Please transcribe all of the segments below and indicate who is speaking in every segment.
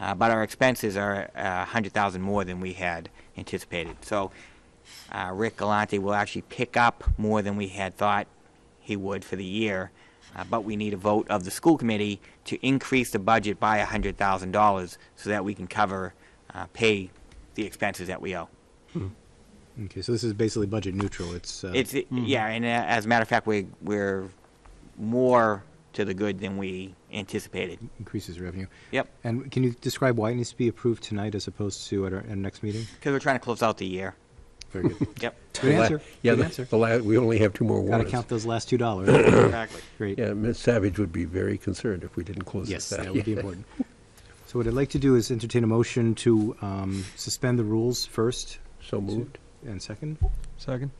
Speaker 1: uh, but our expenses are uh, 100,000 more than we had anticipated. So uh, Rick Galante will actually pick up more than we had thought he would for the year, uh, but we need a vote of the school committee to increase the budget by $100,000 so that we can cover, uh, pay the expenses that we owe.
Speaker 2: Okay, so this is basically budget neutral. It's, uh,
Speaker 1: It's, yeah, and uh, as a matter of fact, we, we're more to the good than we anticipated.
Speaker 2: increases revenue.
Speaker 1: Yep,
Speaker 2: And can you describe why it needs to be approved tonight as opposed to at our, at our next meeting?
Speaker 1: because we're trying to close out the year.
Speaker 3: Very good.
Speaker 1: Yep,
Speaker 2: Good
Speaker 3: The la-
Speaker 2: answer.
Speaker 3: Yeah,
Speaker 2: Good
Speaker 3: the-
Speaker 2: answer.
Speaker 3: the la, we only have two more
Speaker 2: Gotta
Speaker 3: warrants.
Speaker 2: count those last two dollars.
Speaker 1: exactly.
Speaker 2: Great.
Speaker 3: Yeah, Ms. Savage would be very concerned if we didn't close
Speaker 2: Yes,
Speaker 3: this out.
Speaker 2: that would be important. So what I'd like to do is entertain a motion to um, suspend the rules first
Speaker 3: So moved.
Speaker 2: and second.
Speaker 4: Second.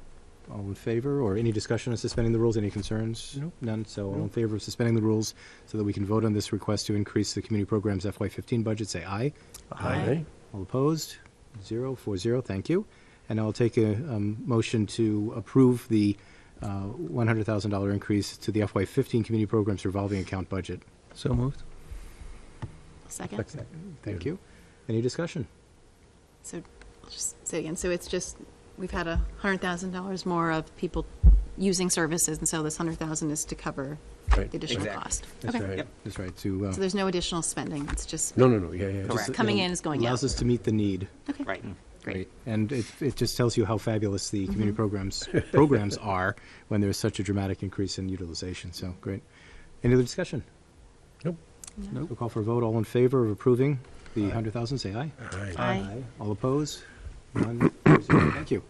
Speaker 2: All in favor, or any discussion on suspending the rules? Any concerns?
Speaker 3: Nope.
Speaker 2: None. So all in favor of suspending the rules so that we can vote on this request to increase the community programs FY15 budget, say aye.
Speaker 3: Aye.
Speaker 2: All opposed? Zero, four zero, thank you. And I'll take a um, motion to approve the uh, $100,000 increase to the FY15 Community Programs Revolving Account budget.
Speaker 4: So moved.
Speaker 5: Second.
Speaker 2: Thank you. Any discussion?
Speaker 5: So, I'll just say again, so it's just, we've had a hundred thousand dollars more of people using services, and so this hundred thousand is to cover
Speaker 3: Right.
Speaker 5: the additional
Speaker 1: Exactly.
Speaker 5: cost.
Speaker 2: That's
Speaker 5: Okay,
Speaker 3: right.
Speaker 1: Yep.
Speaker 2: That's right, to, uh,
Speaker 5: so there's no additional spending, it's just
Speaker 3: No, no, no, yeah, yeah.
Speaker 1: Correct.
Speaker 5: what's coming in is going out.
Speaker 2: allows us to meet the need.
Speaker 5: Okay,
Speaker 1: Right.
Speaker 5: great. Mm-hmm.
Speaker 2: And it, it just tells you how fabulous the community programs, programs are when there's such a dramatic increase in utilization, so, great. Any other discussion?
Speaker 3: Nope.
Speaker 4: Nope.
Speaker 2: We'll call for a vote, all in favor of approving the 100,000, say aye.
Speaker 3: Aye.
Speaker 5: Aye.
Speaker 2: All opposed? None. Four zero. Thank you.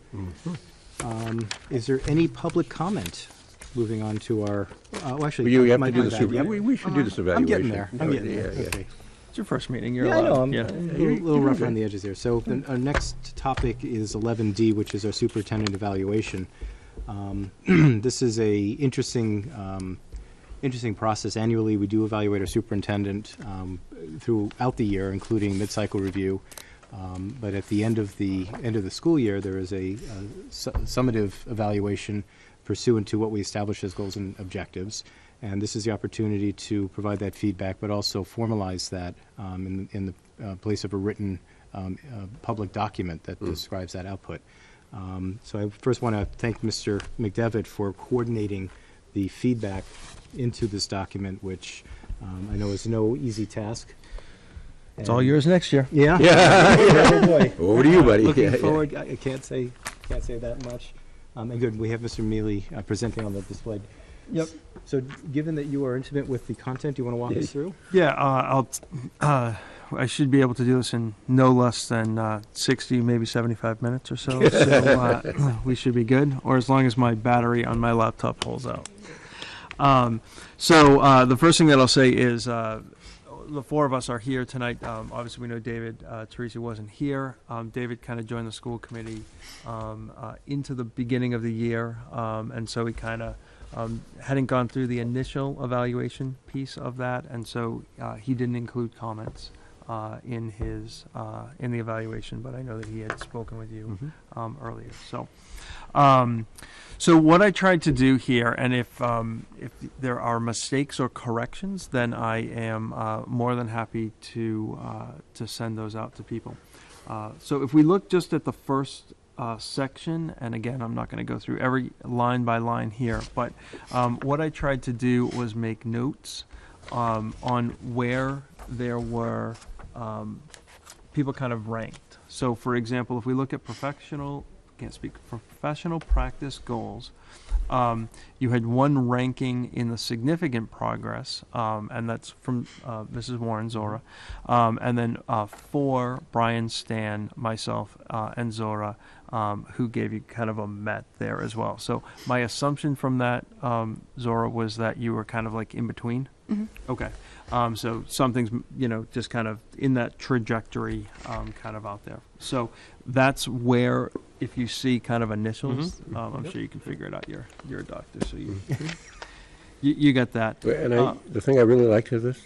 Speaker 2: Um, Is there any public comment? Moving on to our, uh, well, actually.
Speaker 3: You have
Speaker 2: my-
Speaker 3: to do
Speaker 2: my
Speaker 3: the
Speaker 2: bad,
Speaker 3: super,
Speaker 2: yep.
Speaker 3: we, we should do this
Speaker 2: I'm
Speaker 3: evaluation.
Speaker 2: getting there. I'm
Speaker 3: No,
Speaker 2: getting there.
Speaker 3: yeah, yeah.
Speaker 2: Okay.
Speaker 4: It's your first meeting. You're
Speaker 2: Yeah, I
Speaker 4: allowed.
Speaker 2: know, I'm
Speaker 4: yeah.
Speaker 2: I'm a little- little rough around the edges here. So then our next topic is 11D, which is our superintendent evaluation. Um, This is a interesting, um, interesting process. Annually, we do evaluate our superintendent um, throughout the year, including mid-cycle review. Um, But at the end of the, end of the school year, there is a uh, su- summative evaluation pursuant to what we establish as goals and objectives. And this is the opportunity to provide that feedback, but also formalize that um, in, in the uh, place of a written um, uh, public document that describes that output. Um, so I first want to thank Mr. McDevitt for coordinating the feedback into this document, which um, I know is no easy task.
Speaker 4: It's all yours next year.
Speaker 2: Yeah. oh boy.
Speaker 3: Over to you, buddy.
Speaker 2: Looking
Speaker 3: Yeah, yeah.
Speaker 2: forward, I I can't say, can't say that much. Um, and good, we have Mr. Mealy uh, presenting on the display.
Speaker 4: Yep.
Speaker 2: So, given that you are intimate with the content, do you want to walk us through?
Speaker 4: Yeah. Uh, I'll. Uh, I should be able to do this in no less than uh, 60, maybe 75 minutes or so. so uh, we should be good, or as long as my battery on my laptop holds out. Um, so uh, the first thing that I'll say is uh, the four of us are here tonight. Um, obviously, we know David uh, Teresi wasn't here. Um, David kind of joined the school committee um, uh, into the beginning of the year, um, and so he kind of um, hadn't gone through the initial evaluation piece of that, and so uh, he didn't include comments uh, in his uh, in the evaluation. But I know that he had spoken with
Speaker 3: Mm-hmm.
Speaker 4: you um, earlier. So, um, so what I tried to do here, and if um, if there are mistakes or corrections, then I am uh, more than happy to uh, to send those out to people. Uh, so if we look just at the first uh, section, and again, I'm not going to go through every line by line here, but um, what I tried to do was make notes um, on where there were um, people kind of ranked. So, for example, if we look at professional, can't speak for professional practice goals, um, you had one ranking in the significant progress, um, and that's from uh, Mrs. Warren Zora, um, and then uh, four Brian Stan, myself, uh, and Zora, um, who gave you kind of a met there as well. So, my assumption from that, um, Zora, was that you were kind of like in between.
Speaker 5: Mm-hmm.
Speaker 4: Okay. Um, so something's, you know, just kind of in that trajectory, um, kind of out there. So that's where, if you see kind of initials, um, I'm sure you can figure it out. You're, you're a doctor, so you, you, you got that.
Speaker 3: Well, And I,
Speaker 4: Uh,
Speaker 3: the thing I really liked is this,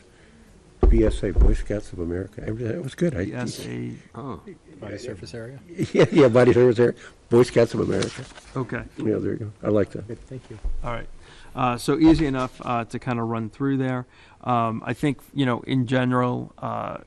Speaker 3: BSA, Boy Scouts of America, I really- it was good. I-
Speaker 4: Yes, a,
Speaker 3: Oh.
Speaker 2: Body surface area.
Speaker 3: Yeah, yeah, Body Service there, Boy Scouts of America,
Speaker 4: okay.
Speaker 3: you know, there you go, I like that.
Speaker 2: Good, thank you.
Speaker 4: All right. Uh, so easy enough uh, to kind of run through there. Um, I think you know in general, uh,